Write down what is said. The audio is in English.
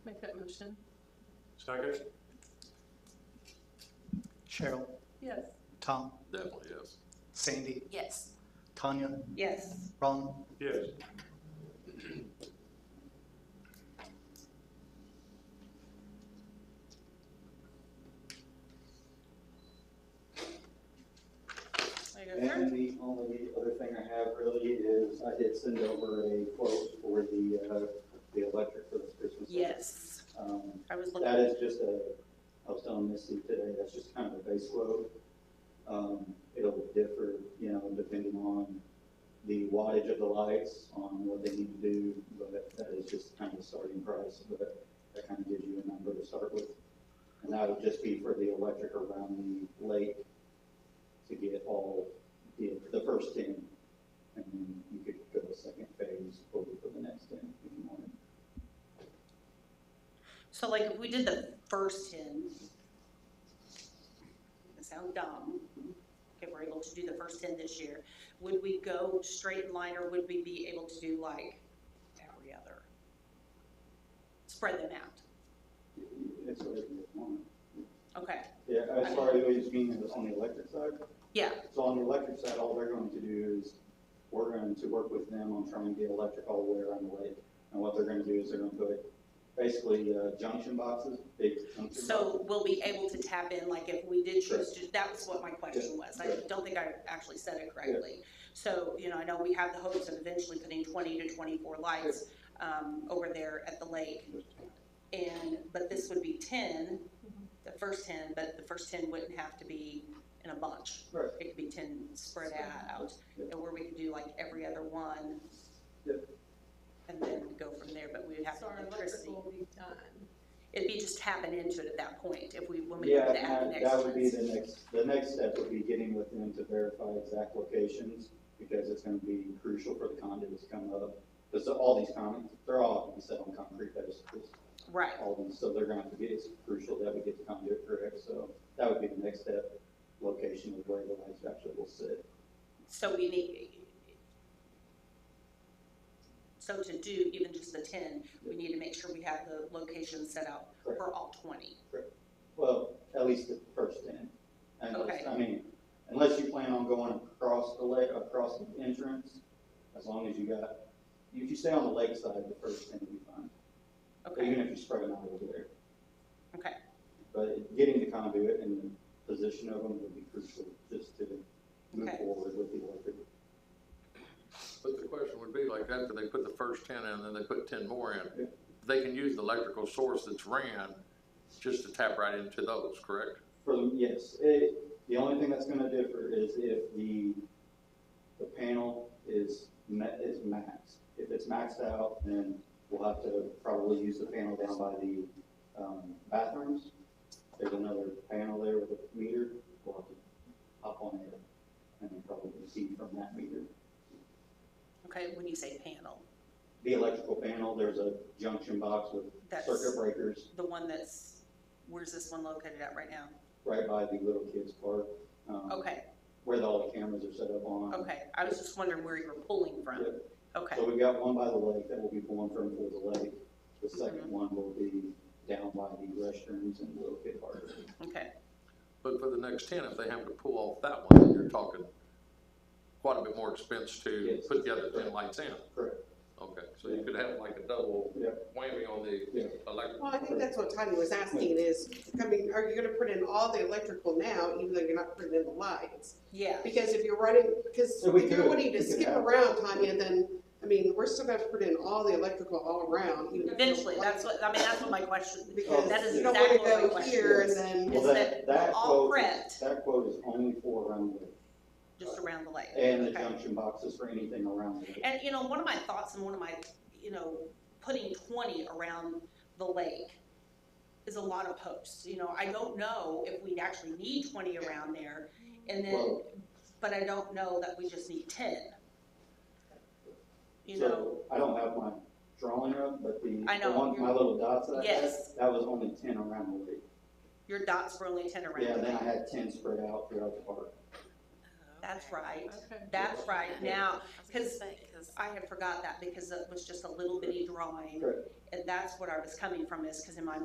resolution? Second? Cheryl, Yes. Tom, Definitely, yes. Sandy, Yes. Tanya, Yes. Ron, Yes. There you go, sir. And the only other thing I have really is I did send over a quote for the, uh, the electric for this Christmas. Yes, Um, I was That looking, is just a, I was telling Missy today, that's just kind of a base load. Um, it'll differ, you know, depending on the wattage of the lights, on what they need to do, but that is just kind of a starting price, but that kind of gives you a number to start with. And that would just be for the electric around the lake to get all, the, the first ten. And then you could go to second phase over for the next ten if you wanted. so like if we did the first ten, it sounds dumb, if we're able to do the first ten this year, would we go straight in line or would we be able to do like every other? Spread them out, It's whatever you want. okay, Yeah, as far as it's being on the electric side, yeah, so on the electric side, all they're going to do is, we're going to work with them on trying to get electric all the way around the lake. And what they're gonna do is they're gonna put basically uh, junction boxes, big junction boxes. so we'll be able to tap in, like if we did choose to, that was what my question was, I Sure. don't think I actually said it correctly. So, you know, I know we have the hopes of eventually putting twenty to twenty-four lights, um, over there at the lake. And, but this would be ten, the first ten, but the first ten wouldn't have to be in a bunch. Right. It could be ten spread out, Yeah. and where we could do like every other one. Yeah. And then go from there, but we would have So our electricity. electrical will be done. It'd be just tapping into it at that point, if we, when we go Yeah, to add the and that- next that would be ones. the next, the next step would be getting with them to verify exact locations, because it's gonna be crucial for the conduits to come up. Because all these conduits, they're all gonna be set on concrete pedestals. Right, all of them, so they're gonna have to get, it's crucial that we get the conduit correct, so that would be the next step, location of where the lights actually will sit. so we need. So to do even just the ten, we need to make sure we have the location set out for all twenty. Well, at least the first ten. And Okay. I mean, unless you plan on going across the lake, across the entrance, as long as you got, if you stay on the lake side, the first ten will be fine, Okay, even if you spread them out over there. Okay. But getting the conduit and the position of them would be crucial, just to move Okay. forward with the electric But the question would be like after they put the first ten in and then they put ten more in, they can use the electrical source that's ran just to tap right into those, correct? For the, yes, it, the only thing that's gonna differ is if the, the panel is ma- is maxed. If it's maxed out, then we'll have to probably use the panel down by the, um, bathrooms. There's another panel there with a meter, we'll have to hop on it and then probably see from that meter. okay, when you say panel, The electrical panel, there's a junction box with that's circuit breakers the one that's, where's this one located at right now? right by the little kids park. um, Okay, Where all the cameras are set up on. okay, I was just wondering where you were pulling from, Yep. okay, So we've got one by the lake that will be pulling from for the lake. The Mm-hmm. second one will be down by the restrooms and little kid park. okay, But for the next ten, if they have to pull off that one, then you're talking quite a bit more expense to Yes. put the other ten lights in. Correct. Okay, so you could have like a double Yeah. whammy on Yeah. the electric. Well, I think that's what Tanya was asking is, I mean, are you gonna put in all the electrical now, even though you're not putting in the lights? yeah. Because if you're running, because So we if you're could- wanting to we could skip have- around, Tanya, then, I mean, we're still gonna have to put in all the electrical all around. even if you're Eventually, that's lights. what, I mean, that's what my question, Because that is you don't wanna exactly what my go question here and is. then, Well, Is that we're that all quote- prepped. That quote is only for around the lake just around the lake. and the Okay. junction boxes for anything around the lake. And, you know, one of my thoughts and one of my, you know, putting twenty around the lake is a lot of posts, you know, I don't know if we'd actually need twenty around there, and then, Well, but I don't know that we just need ten. You know, so I don't have my drawing up, but the, I the know, one, my you're- little dots that I had, yes, that was only ten around the lake. your dots were only ten Yeah, around and the then I lake, had ten spread out throughout the park. that's right, Okay. that's right, now, Because, I had forgot that because it was just a little bitty drawing. Correct. And that's what I was coming from is, cause in my